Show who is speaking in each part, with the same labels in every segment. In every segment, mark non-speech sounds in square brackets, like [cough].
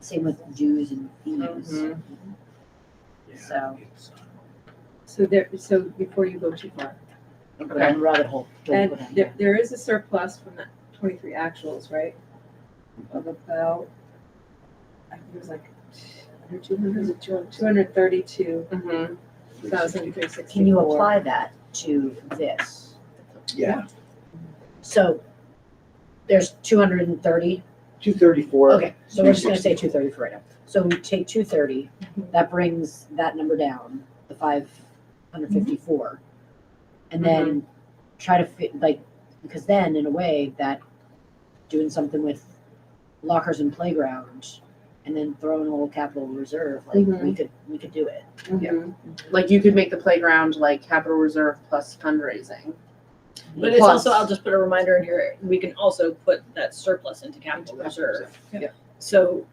Speaker 1: Same with Jews and thieves.
Speaker 2: Mhm.
Speaker 1: So-
Speaker 3: So there, so before you go too far,
Speaker 1: Don't go down the rabbit hole. Don't go
Speaker 3: and
Speaker 1: down
Speaker 3: there,
Speaker 1: there.
Speaker 3: there is a surplus from that twenty-three actuals, right? Of about, I think it was like, under two hundred, two hundred thirty-two
Speaker 2: Mhm.
Speaker 3: thousand three sixty-four.
Speaker 1: Can you apply that to this?
Speaker 4: Yeah,
Speaker 1: So there's two hundred and thirty.
Speaker 4: two thirty-four.
Speaker 1: Okay, so we're just gonna say two thirty for right now. So we take two thirty, that brings that number down, the five
Speaker 2: Mm-hmm.
Speaker 1: hundred fifty-four. And then try to fit, like, because then in a way that doing something with lockers and playground and then throwing a little capital reserve, like, we
Speaker 2: Mhm.
Speaker 1: could, we could do it.
Speaker 2: Mhm. Like you could make the playground like capital reserve plus fundraising.
Speaker 5: But it's
Speaker 2: Plus-
Speaker 5: also, I'll just put a reminder in here, we can also put that surplus into capital reserve.
Speaker 3: Yeah.
Speaker 5: So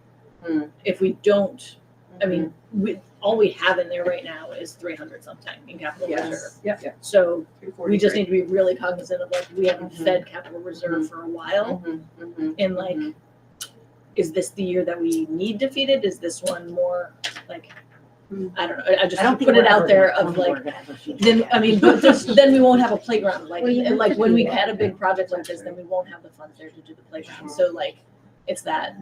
Speaker 2: Hmm.
Speaker 5: if we don't, I mean, we, all we have in there right now is three hundred something in capital reserve.
Speaker 3: Yes, yep,
Speaker 5: So we just
Speaker 3: 343.
Speaker 5: need to be really cognizant of like, we haven't
Speaker 2: Mhm.
Speaker 5: fed capital reserve for a while.
Speaker 2: Mhm. Mhm.
Speaker 5: And like,
Speaker 2: Mhm.
Speaker 5: is this the year that we need to feed it? Is this one more like,
Speaker 3: Hmm.
Speaker 5: I don't know, I I just
Speaker 1: I don't think
Speaker 5: put it
Speaker 1: we're ever
Speaker 5: out there
Speaker 1: gonna-
Speaker 5: of
Speaker 1: we're
Speaker 5: like,
Speaker 1: gonna ever feed it
Speaker 5: then
Speaker 1: again.
Speaker 5: I mean, but just, then we won't have a playground like
Speaker 1: Well, you
Speaker 5: and like
Speaker 1: have to
Speaker 5: when
Speaker 1: do
Speaker 5: we
Speaker 1: that.
Speaker 5: had a big project like this, then we won't have the funds there to do the playground. So like, it's that.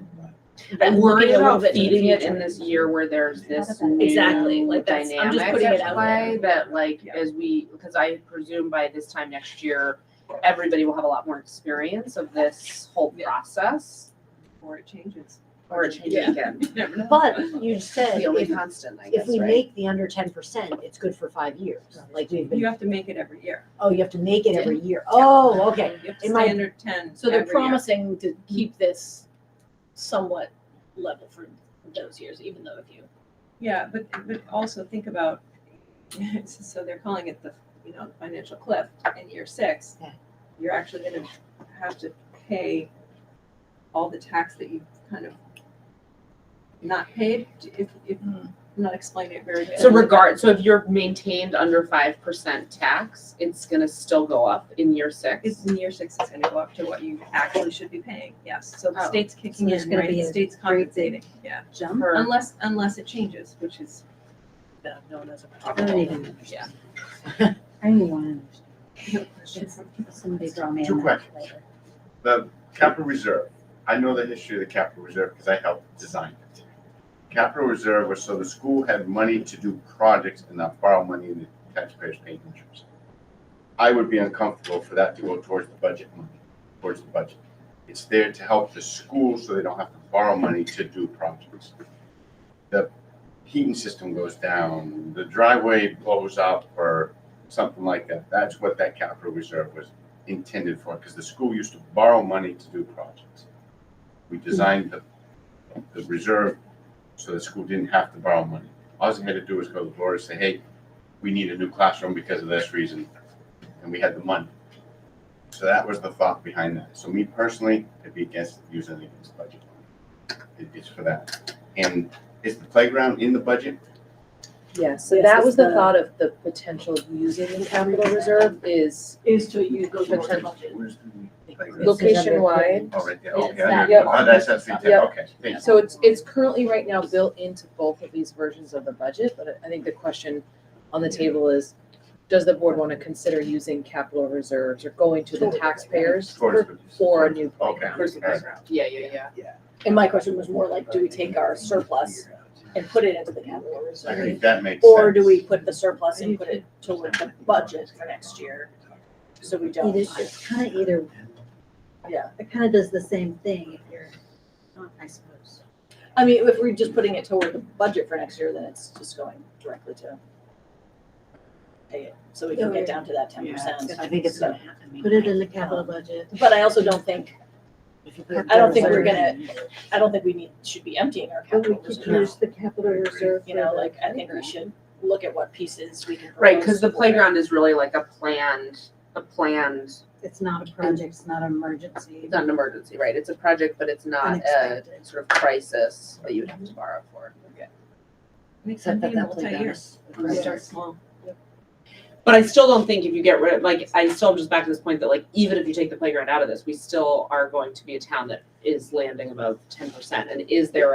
Speaker 5: that
Speaker 2: I'm worried
Speaker 5: looking a little
Speaker 2: about
Speaker 5: bit to the
Speaker 2: feeding it
Speaker 5: future.
Speaker 2: in this year where there's this new
Speaker 5: Exactly, like that's- I'm just
Speaker 2: dynamic
Speaker 5: putting
Speaker 2: at
Speaker 5: it out
Speaker 2: play
Speaker 5: there.
Speaker 2: that like
Speaker 3: Yeah.
Speaker 2: as we because I presume by this time next year everybody will have a lot more experience of this whole
Speaker 5: Yeah.
Speaker 2: process
Speaker 3: Or it changes.
Speaker 2: or it changes
Speaker 5: Yeah.
Speaker 2: again.
Speaker 3: Never know.
Speaker 1: But you said,
Speaker 2: It's the only
Speaker 1: if,
Speaker 2: constant, I guess,
Speaker 1: if we
Speaker 2: right?
Speaker 1: make the under ten percent, it's good for five years. Like we've
Speaker 3: You
Speaker 1: been,
Speaker 3: have to make it every year.
Speaker 1: oh, you have to make it every year. Oh, okay.
Speaker 3: You have to
Speaker 1: It might-
Speaker 3: stay under ten
Speaker 5: So they're
Speaker 3: every year.
Speaker 5: promising to keep this somewhat level for those years, even though if you.
Speaker 3: Yeah, but, but also think about, [laughs] so they're calling it the, you know, financial cliff in year six.
Speaker 1: Yeah.
Speaker 3: You're actually gonna have to pay all the tax that you kind of not paid, if, if, I'm not explaining it very good.
Speaker 2: So regard, so if you're maintained under five percent tax, it's gonna still go up in year six.
Speaker 3: It's in year six, it's gonna go up to what you actually should be paying, yes, so the
Speaker 2: Oh.
Speaker 3: state's kicking
Speaker 6: there's
Speaker 3: in,
Speaker 6: gonna
Speaker 3: right,
Speaker 6: be
Speaker 3: the
Speaker 6: a
Speaker 3: state's
Speaker 6: great
Speaker 3: compensating, yeah.
Speaker 6: jump.
Speaker 2: For-
Speaker 3: Unless, unless it changes, which is
Speaker 5: Yeah, no, that's a
Speaker 1: I don't even
Speaker 5: Yeah.
Speaker 1: understand.
Speaker 6: [laughs] I don't even want
Speaker 3: no question.
Speaker 6: to, somebody draw me
Speaker 7: Two
Speaker 6: on that
Speaker 7: questions.
Speaker 6: later.
Speaker 7: The capital reserve, I know the history of the capital reserve because I helped design it. Capital reserve was so the school had money to do projects and not borrow money and the taxpayers paid interest. I would be uncomfortable for that to go towards the budget money, towards the budget. It's there to help the school so they don't have to borrow money to do projects. The heating system goes down, the driveway blows up or something like that. That's what that capital reserve was intended for, because the school used to borrow money to do projects.
Speaker 8: Hmm.
Speaker 7: We designed the, the reserve so the school didn't have to borrow money. All they had to do was go to the board and say, hey, we need a new classroom because of this reason, and we had the money. So that was the thought behind that. So me personally, I'd be against using it against budget money. It- It's for that. And is the playground in the budget?
Speaker 8: Yeah, so
Speaker 5: Yes,
Speaker 8: that
Speaker 5: it's
Speaker 8: was the
Speaker 5: the-
Speaker 8: thought of the potential of using the capital reserve is
Speaker 5: Is to use those
Speaker 2: towards the
Speaker 7: Where's the playground?
Speaker 8: location wide.
Speaker 7: Oh, right there,
Speaker 5: Yeah,
Speaker 7: okay.
Speaker 5: it's
Speaker 7: I
Speaker 5: that.
Speaker 7: know. Oh, that's, that's, the
Speaker 8: Yep.
Speaker 7: intent. okay, thank you.
Speaker 8: So it's, it's currently right now built into both of these versions of the budget, but I think the question on the table is, does the board want to consider using capital reserves or going to the taxpayers
Speaker 7: Towards
Speaker 8: for,
Speaker 7: the-
Speaker 8: for a new
Speaker 7: Okay.
Speaker 8: playground?
Speaker 3: Where's the
Speaker 7: all right.
Speaker 3: background?
Speaker 2: Yeah, yeah, yeah.
Speaker 5: And my question was more like, do we take our surplus and put it into the capital
Speaker 7: I
Speaker 5: reserve?
Speaker 7: think that makes sense.
Speaker 5: Or do we put the surplus and put it toward the budget for next year? So we don't.
Speaker 6: Either, it's kind of either.
Speaker 5: Yeah.
Speaker 6: It kind of does the same thing if you're, oh, I suppose.
Speaker 5: I mean, if we're just putting it toward the budget for next year, then it's just going directly to. pay it, So we can get down to that ten percent.
Speaker 1: I think it's gonna happen. I mean,
Speaker 6: Put it in the capital budget.
Speaker 5: But I also don't think,
Speaker 1: if you put it
Speaker 5: I don't think we're
Speaker 1: there,
Speaker 5: gonna- I don't think we need, should be emptying our
Speaker 6: But we
Speaker 5: capital
Speaker 6: could
Speaker 5: reserve.
Speaker 6: use the capital reserve.
Speaker 5: You know,
Speaker 6: for the
Speaker 5: like, I think we should look at what pieces we can.
Speaker 2: Right, because the
Speaker 5: propose for it.
Speaker 2: playground is really like a planned, a planned,
Speaker 6: It's not a project, it's not an emergency.
Speaker 2: it's not an emergency, right? It's a project, but it's not a
Speaker 6: Unexpected.
Speaker 2: sort of crisis that you would have to borrow for.
Speaker 1: Except that that playground is.
Speaker 3: Start small.
Speaker 2: But I still don't think if you get rid of, like, I still am just back to this point that like, even if you take the playground out of this, we still are going to be a town that is landing above ten percent. And is there